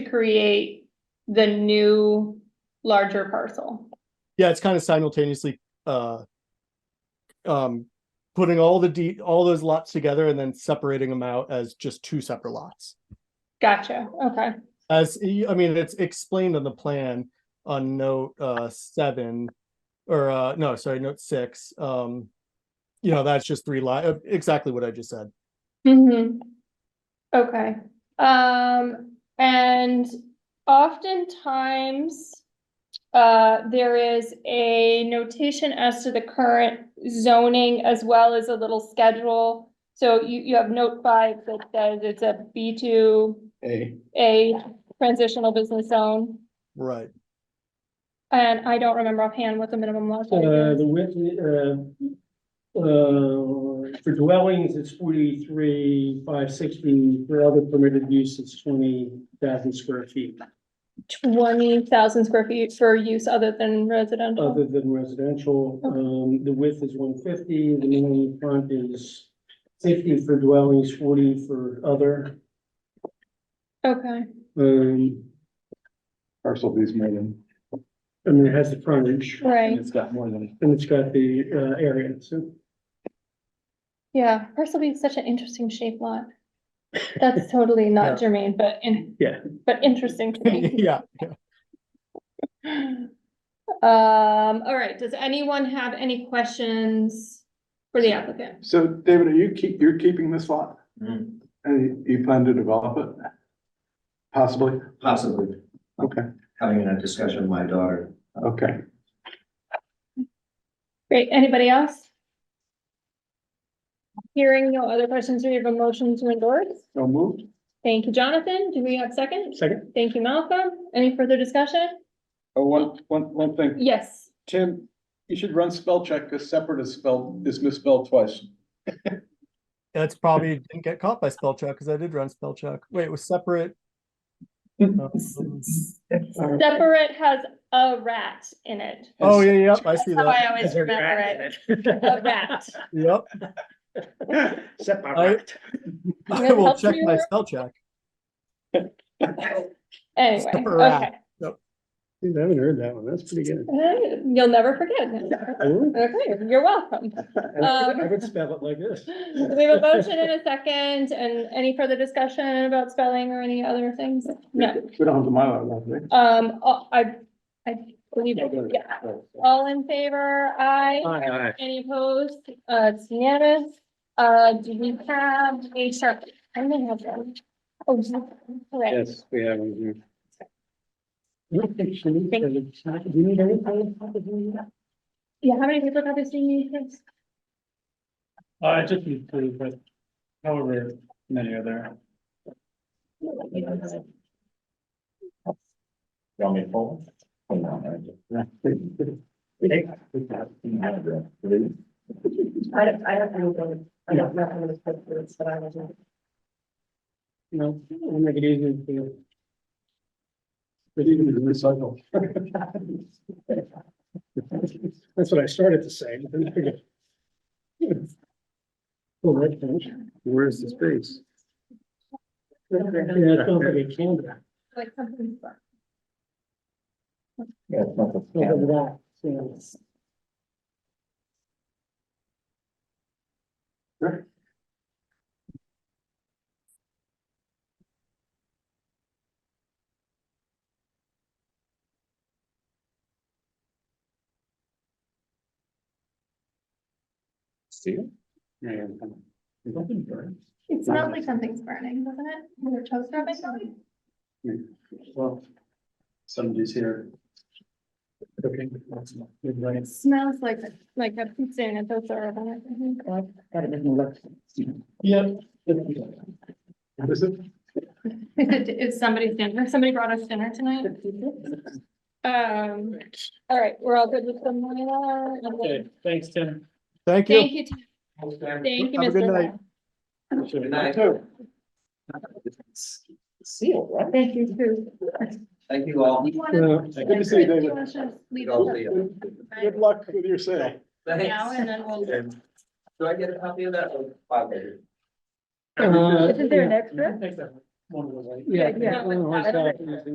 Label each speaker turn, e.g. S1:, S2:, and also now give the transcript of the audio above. S1: create the new larger parcel.
S2: Yeah, it's kind of simultaneously, uh, um, putting all the de all those lots together and then separating them out as just two separate lots.
S1: Gotcha, okay,
S2: As, y- I mean, it's explained on the plan on note, uh, seven, or, uh, no, sorry, note six, um, you know, that's just three lot, uh, exactly what I just said.
S1: hmm Okay, um, and oftentimes. Uh, there is a notation as to the current zoning as well as a little schedule. So you, you have note five that says it's a B two,
S3: A,
S1: a transitional business zone.
S2: Right,
S1: And I don't remember offhand what the minimum lot size
S4: Uh,
S1: is.
S4: the width, uh, uh, for dwellings, it's forty-three, five sixty, for other permitted use, it's twenty thousand square feet,
S1: Twenty thousand square feet for use other than residential.
S4: other than residential, um, the width is one fifty, the minimum front is fifty for dwellings, forty for other,
S1: Okay,
S4: um,
S3: parcel B's more than,
S4: I mean, it has the frontage,
S1: right,
S3: and it's got more than,
S4: and it's got the, uh, area, so.
S1: yeah, parcel B is such an interesting shaped lot. That's totally not germane, but in.
S4: Yeah.
S1: But interesting to me.
S2: yeah.
S1: Um, all right, does anyone have any questions for the applicant?
S3: so David, are you keep, you're keeping this lot?
S5: Mm,
S3: And you you plan to develop it? Possibly,
S5: Possibly,
S3: okay,
S5: having a discussion with my daughter.
S3: okay.
S1: Great, anybody else? Hearing no other questions, we have a motion to endorse.
S3: So moved?
S1: Thank you, Jonathan. Do we have second?
S4: Second.
S1: Thank you, Malcolm. Any further discussion?
S3: Oh, one, one, one thing,
S1: Yes.
S3: Tim, you should run spell check, because separate is spelled, is misspelled twice.
S2: That's probably didn't get caught by spell check because I did run spell check. Wait, it was separate. Um,
S1: Separate has a rat in it.
S2: Oh, yeah, yeah, I see
S1: That's how I
S2: that.
S1: always remember it. A rat.
S2: Yep.
S4: Separate.
S2: I
S1: Really
S2: will
S1: helps
S2: check
S1: me
S2: my
S1: remember?
S2: spell check.
S1: Anyway,
S2: A
S1: okay.
S2: rat.
S4: Dude, I haven't heard that one, that's pretty good.
S1: You'll never forget it. Um, Okay, you're welcome.
S4: I would- I would spell it like this.
S1: We have a motion and a second, and any further discussion about spelling or any other things? No.
S3: We don't have the Mylar, left, right?
S1: Um, oh, I, I believe, it. yeah. All in favor? Aye.
S4: Aye, aye.
S1: Any opposed? Uh, it's unanimous. Uh, do we have a sharp? I may have one. Oh, is that- correct.
S4: Yes, we have one here. Do you need anything?
S1: Yeah, how many people have this thing you guys?
S4: Uh, I just need to, but however many are there.
S5: Want me to pull?
S6: I don't, I don't know, I don't know how to put this, but I was.
S4: You know, I'll make it easier for you.
S3: Recycle.
S4: That's what I started to say. but then I forget. Well, right, finish.
S3: Where's the space?
S4: Yeah, it sounds like a candidate.
S1: Like something.
S5: Yeah, it's not the-
S4: Look at that, yes.
S5: See it?
S4: Yeah.
S5: It's open door.
S1: It smelled like something's burning, doesn't it? Your toaster oven something?
S3: Well, somebody's here.
S4: Okay. Good, right.
S1: Smells like, like a pizza and a toaster oven.
S6: Got it doesn't look.
S4: Yep.
S3: Is it?
S1: It's somebody's dinner. Somebody brought us dinner tonight. Um, all right, we're all good with the Mylar. and the-
S4: Okay, thanks, Tim.
S2: Thank you.
S1: Thank you, Tim. thank you,
S2: Have a good
S1: Mr.
S2: night.
S1: Lau.
S5: Good night.
S6: Seal, right? Thank you too.
S5: Thank you all.
S1: You wanna-
S4: Uh,
S1: Chris,
S3: Good to see you,
S1: do you
S3: David.
S1: wanna just leave
S5: I'll
S1: it
S5: see
S3: Good luck with your sale.
S1: Now and then we'll.
S5: Do I get a copy of that or five later?
S6: Isn't there an extra?
S4: Thanks, Tim.
S1: one of the, yeah.
S4: Yeah, yeah.
S1: one of the horse
S4: I don't know.
S1: doctors.